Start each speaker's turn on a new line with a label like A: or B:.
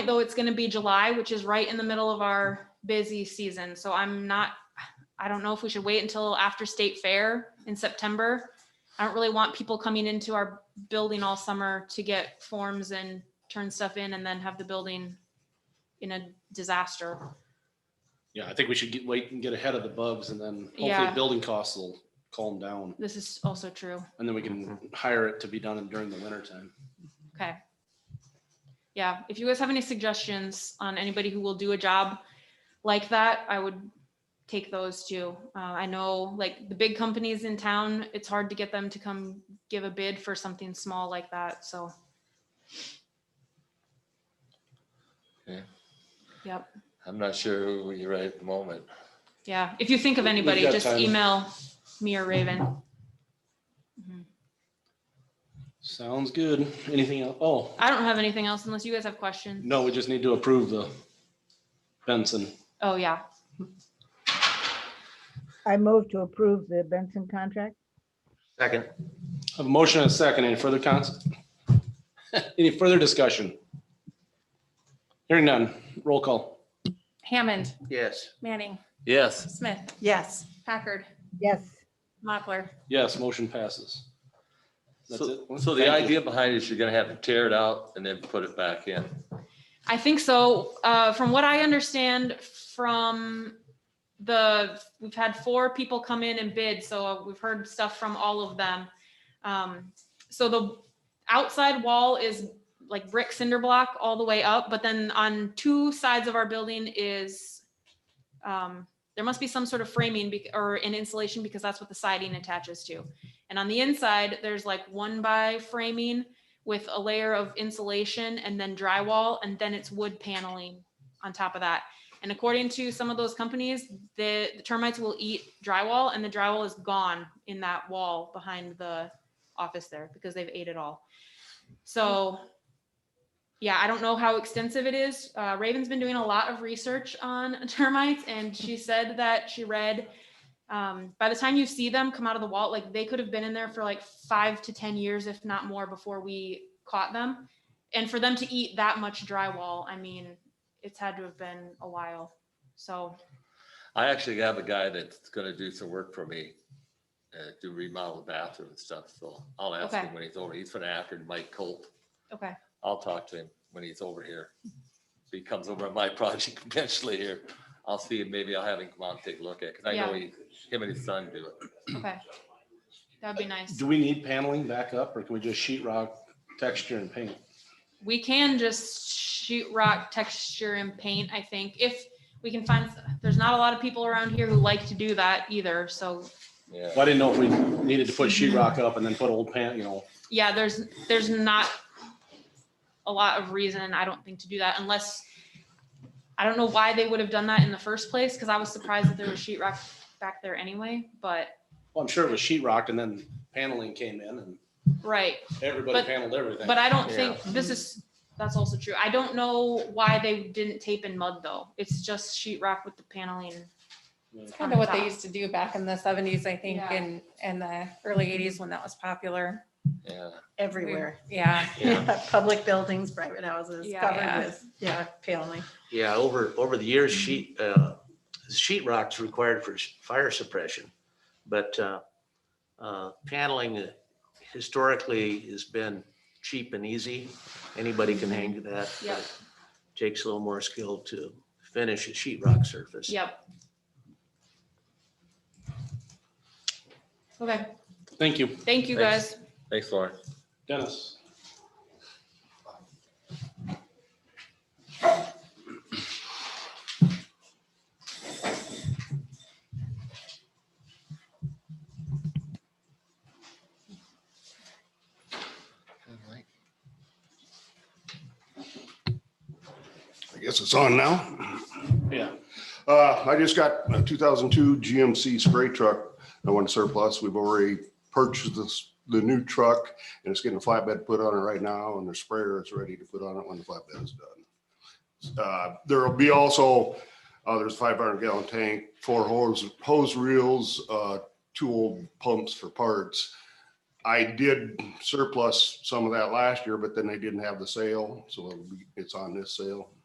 A: though it's gonna be July, which is right in the middle of our busy season, so I'm not, I don't know if we should wait until after state fair in September. I don't really want people coming into our building all summer to get forms and turn stuff in and then have the building in a disaster.
B: Yeah, I think we should get, wait and get ahead of the bugs and then hopefully
A: Yeah.
B: building costs will calm down.
A: This is also true,
B: And then we can hire it to be done during the winter time.
A: okay. Yeah, if you guys have any suggestions on anybody who will do a job like that, I would take those too. Uh, I know, like, the big companies in town, it's hard to get them to come give a bid for something small like that, so.
C: Yeah.
A: Yep,
C: I'm not sure who we write at the moment.
A: yeah, if you think of
B: We've
A: anybody,
B: got
A: just
B: time.
A: email me or Raven. Mhm.
B: Sounds good. Anything else? Oh,
A: I don't have anything else unless you guys have questions.
B: no, we just need to approve the Benson.
A: Oh, yeah.
D: I move to approve the Benson contract.
E: Second.
B: Have a motion and a second. Any further cons? Any further discussion? Hearing none. Roll call.
F: Hammond,
E: Yes.
F: Manning,
C: Yes.
F: Smith,
G: yes.
F: Packard,
D: Yes,
F: Mochler.
B: Yes, motion passes. That's
C: So,
B: it.
C: so the
B: Thank you.
C: idea behind it is you're gonna have to tear it out and then put it back in.
A: I think so. Uh, from what I understand from the, we've had four people come in and bid, so we've heard stuff from all of them. Um, so the outside wall is like brick cinder block all the way up, but then on two sides of our building is, um, there must be some sort of framing bec- or an insulation because that's what the siding attaches to. And on the inside, there's like one by framing with a layer of insulation and then drywall, and then it's wood paneling on top of that. And according to some of those companies, the, the termites will eat drywall and the drywall is gone in that wall behind the office there because they've ate it all. So, yeah, I don't know how extensive it is. Uh, Raven's been doing a lot of research on termites and she said that she read um, by the time you see them come out of the wall, like they could have been in there for like five to 10 years, if not more, before we caught them. And for them to eat that much drywall, I mean, it's had to have been a while. So,
C: I actually have a guy that's gonna do some work for me. Uh, to remodel the bathroom and stuff, so I'll ask
A: Okay.
C: him when he's over. He's from Akron, Mike Colt.
A: okay.
C: I'll talk to him when he's over here. If he comes over on my project eventually here, I'll see him, maybe I'll have him come out and take a look at it, cause I know he, him and his son do it.
A: Okay. That'd be nice.
B: Do we need paneling back up or can we just sheet rock texture and paint?
A: We can just shoot rock texture and paint, I think, if we can find, there's not a lot of people around here who like to do that either. So,
C: Yeah.
B: Well, I didn't know if we needed to put sheet rock up and then put old pan, you know,
A: yeah, there's, there's not a lot of reason, I don't think, to do that unless, I don't know why they would have done that in the first place, because I was surprised that there was sheetrock back there anyway, but,
B: well, I'm sure it was sheet rocked and then paneling came in and
A: right.
B: everybody
A: But-
B: paneled everything.
A: But I don't
C: Yeah.
A: think, this is, that's also true. I don't know why they didn't tape in mud, though. It's just sheetrock with the paneling.
F: It's kind of what they used to do back in the seventies, I think,
A: Yeah.
F: and, and the early eighties when that was popular.
C: Yeah.
G: Everywhere.
F: Yeah,
E: Yeah,
G: Public buildings, private houses,
A: Yeah.
F: Yeah.
G: covered with, yeah, paneling.
E: yeah, over, over the years, sheet, uh, sheet rock's required for s- fire suppression. But, uh, uh, paneling historically has been cheap and easy. Anybody can hang to that. but
A: Yep.
E: it Takes a little more skill to finish a sheet rock surface.
A: Yep. Okay,
B: Thank you,
A: thank you,
C: Thanks.
A: guys.
C: Thanks, Lauren.
B: Dennis.
H: I guess it's on now.
B: Yeah.
H: Uh, I just got a 2002 GMC spray truck. I want to surplus. We've already purchased this, the new truck and it's getting a flatbed put on it right now and the sprayer is ready to put on it when the flatbed is done. Uh, There'll be also, uh, there's a 500 gallon tank, four hose, hose reels, uh, two old pumps for parts. I did surplus some of that last year, but then they didn't have the sale, so it'll be, it's on this sale.